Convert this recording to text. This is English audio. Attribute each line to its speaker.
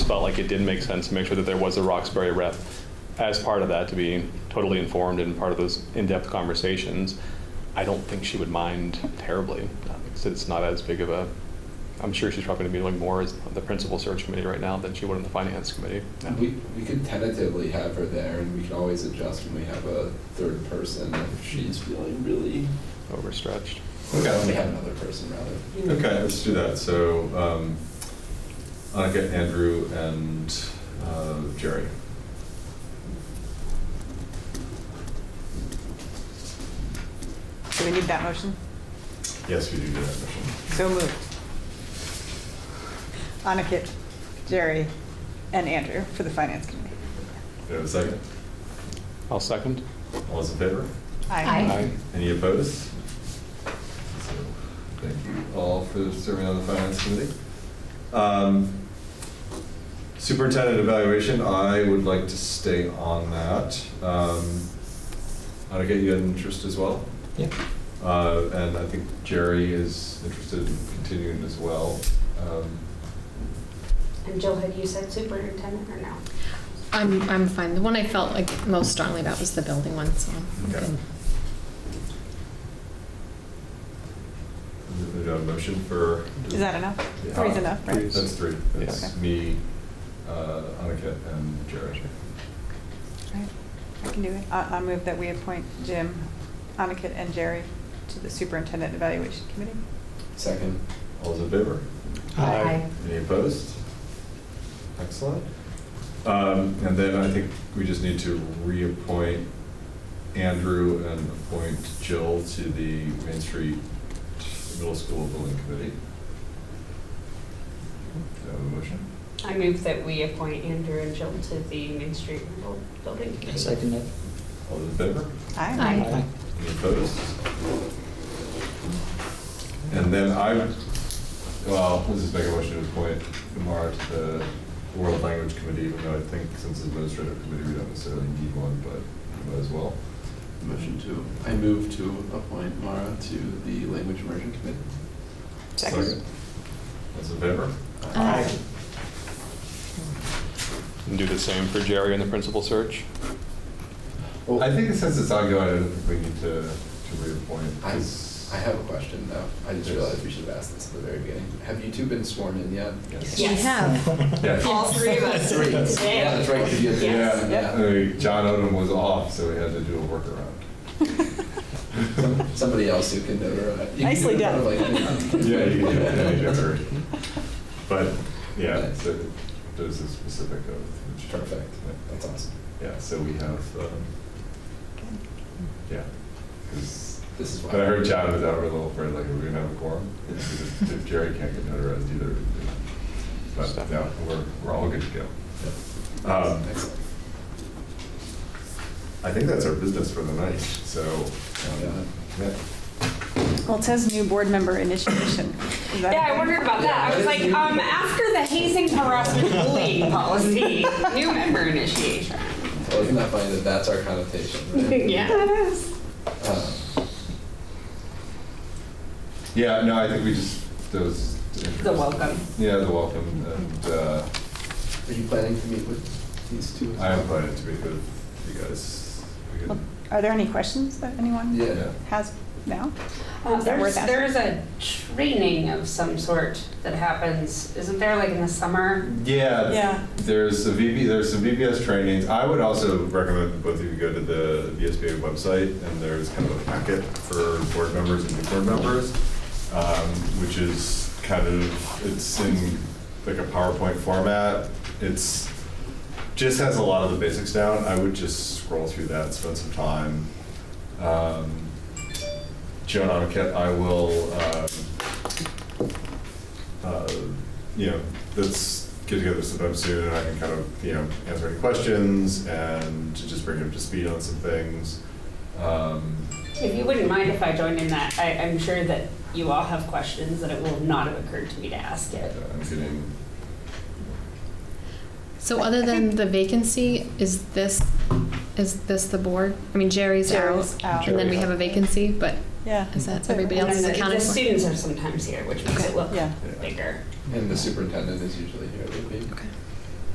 Speaker 1: felt like it did make sense to make sure that there was a Roxbury rep as part of that, to be totally informed and part of those in-depth conversations. I don't think she would mind terribly, uh, since it's not as big of a, I'm sure she's probably gonna be doing more as the principal search committee right now than she would in the finance committee.
Speaker 2: We, we could tentatively have her there and we can always adjust when we have a third person if she's feeling really,
Speaker 1: Overstretched.
Speaker 2: when we
Speaker 3: Okay,
Speaker 2: have another person rather.
Speaker 3: okay, let's do that. So, um, Annika, Andrew, and uh, Jerry.
Speaker 4: Do we need that motion?
Speaker 3: Yes, we do do that motion.
Speaker 4: So moved. Anakit, Jerry, and Andrew for the Finance Committee.
Speaker 3: Do I have a second?
Speaker 1: I'll second.
Speaker 3: All those in favor?
Speaker 4: Aye.
Speaker 1: Aye.
Speaker 3: Any opposed? So, Thank you all for serving on the Finance Committee. Um, Superintendent evaluation, I would like to stay on that. Um, Annika, you had an interest as well?
Speaker 5: Yeah.
Speaker 3: Uh, And I think Jerry is interested in continuing as well. Um,
Speaker 6: And Jill, had you said superintendent or no?
Speaker 7: I'm, I'm fine. The one I felt like most strongly about was the building one, so. I'm
Speaker 3: Okay.
Speaker 7: good.
Speaker 3: do we have a motion for?
Speaker 4: Is that enough?
Speaker 3: Yeah.
Speaker 4: Three's enough, right?
Speaker 3: That's three. That's
Speaker 4: Okay.
Speaker 3: me, uh, Annika, and Jerry.
Speaker 4: Alright, I can do it. I I move that we appoint Jim, Anakit, and Jerry to the Superintendent Evaluation Committee.
Speaker 2: Second,
Speaker 3: All those in favor?
Speaker 5: Aye.
Speaker 3: Any opposed? Excellent. Um, And then I think we just need to reappoint Andrew and appoint Jill to the Main Street Middle School Building Committee. Do I have a motion?
Speaker 6: I move that we appoint Andrew and Jill to the Main Street Rental Building
Speaker 5: I
Speaker 6: Committee.
Speaker 5: second it.
Speaker 3: All those in favor?
Speaker 4: Aye.
Speaker 5: Aye.
Speaker 3: Any opposed? And then I, well, let's just make a motion to appoint Kumar to the World Language Committee, even though I think since it's administrative committee, we don't necessarily need one, but we might as well.
Speaker 2: motion to, I move to appoint Mara to the Language Immersion Committee.
Speaker 4: Second.
Speaker 3: Those in favor?
Speaker 4: Uh,
Speaker 7: Aye.
Speaker 1: And do the same for Jerry and the principal search.
Speaker 2: Well,
Speaker 3: I think since it's ongoing, I don't think we need to, to reappoint.
Speaker 2: I,
Speaker 3: 'cause-
Speaker 2: I have a question though. I just
Speaker 3: Yes.
Speaker 2: realized we should have asked this at the very beginning. Have you two been sworn in yet?
Speaker 3: Yes.
Speaker 7: We
Speaker 6: Yes.
Speaker 7: have.
Speaker 3: Yes.
Speaker 6: All three of us
Speaker 2: Three.
Speaker 6: today.
Speaker 2: Yeah, that's right, 'cause you had to-
Speaker 6: Yes.
Speaker 3: Yeah, I mean, John Odom was off, so we had to do a workaround.
Speaker 2: Some- Somebody else who can notarize. you can do
Speaker 4: Nicely
Speaker 2: it
Speaker 4: done.
Speaker 2: like-
Speaker 3: Yeah, you can do it any other. But, yeah, so there's a specific oath. which-
Speaker 2: Perfect, that's awesome.
Speaker 3: Yeah, so we have, um, yeah. 'Cause-
Speaker 2: This is why.
Speaker 3: But I heard John was out a little afraid, like, are we gonna have a quorum? If if Jerry can't get notarized either. But, no, we're, we're all good to go. Um,
Speaker 2: Excellent.
Speaker 3: I think that's our business for the night, so, um, yeah.
Speaker 4: Well, it says new board member initiation. Is that-
Speaker 6: Yeah, I wondered about that. I was like, um, after the hazing harassment bullying policy, new member initiation.
Speaker 2: Well, isn't that funny that that's our connotation, right?
Speaker 6: Yes.
Speaker 2: Um,
Speaker 3: Yeah, no, I think we just, those.
Speaker 6: The welcome.
Speaker 3: Yeah, the welcome, and uh,
Speaker 2: Are you planning to meet with these two? as
Speaker 3: I am
Speaker 2: well?
Speaker 3: planning to be with you guys. We
Speaker 4: Well,
Speaker 3: can-
Speaker 4: Are there any questions that anyone
Speaker 2: Yeah.
Speaker 3: Yeah.
Speaker 4: has now?
Speaker 6: Uh,
Speaker 4: Is that worth asking?
Speaker 6: There's, there's a training of some sort that happens, isn't there, like in the summer?
Speaker 3: Yeah.
Speaker 4: Yeah.
Speaker 3: There's a VB, there's some VBS trainings. I would also recommend that both of you go to the VSBA website, and there's kind of a packet for board members and new board members, um, which is kind of, it's in like a PowerPoint format. It's, just has a lot of the basics down. I would just scroll through that, spend some time. Um, Joan Arquette, I will, um, uh, you know, let's get together sometime soon, and I can kind of, you know, answer any questions and to just bring you up to speed on some things. Um,
Speaker 6: If you wouldn't mind if I joined in that, I, I'm sure that you all have questions that it will not have occurred to me to ask yet.
Speaker 3: I'm getting,
Speaker 7: So other than the vacancy, is this, is this the board? I mean, Jerry's out,
Speaker 4: Jerry's out.
Speaker 7: and then we have a vacancy, but
Speaker 4: Yeah.
Speaker 7: is that
Speaker 4: So-
Speaker 7: everybody
Speaker 6: And
Speaker 7: else is
Speaker 6: then the-
Speaker 7: accounted
Speaker 6: The
Speaker 7: for?
Speaker 6: students are sometimes here, which makes it look
Speaker 4: Yeah.
Speaker 3: yeah.
Speaker 6: bigger.
Speaker 2: And the superintendent is usually here, would be.
Speaker 7: Okay.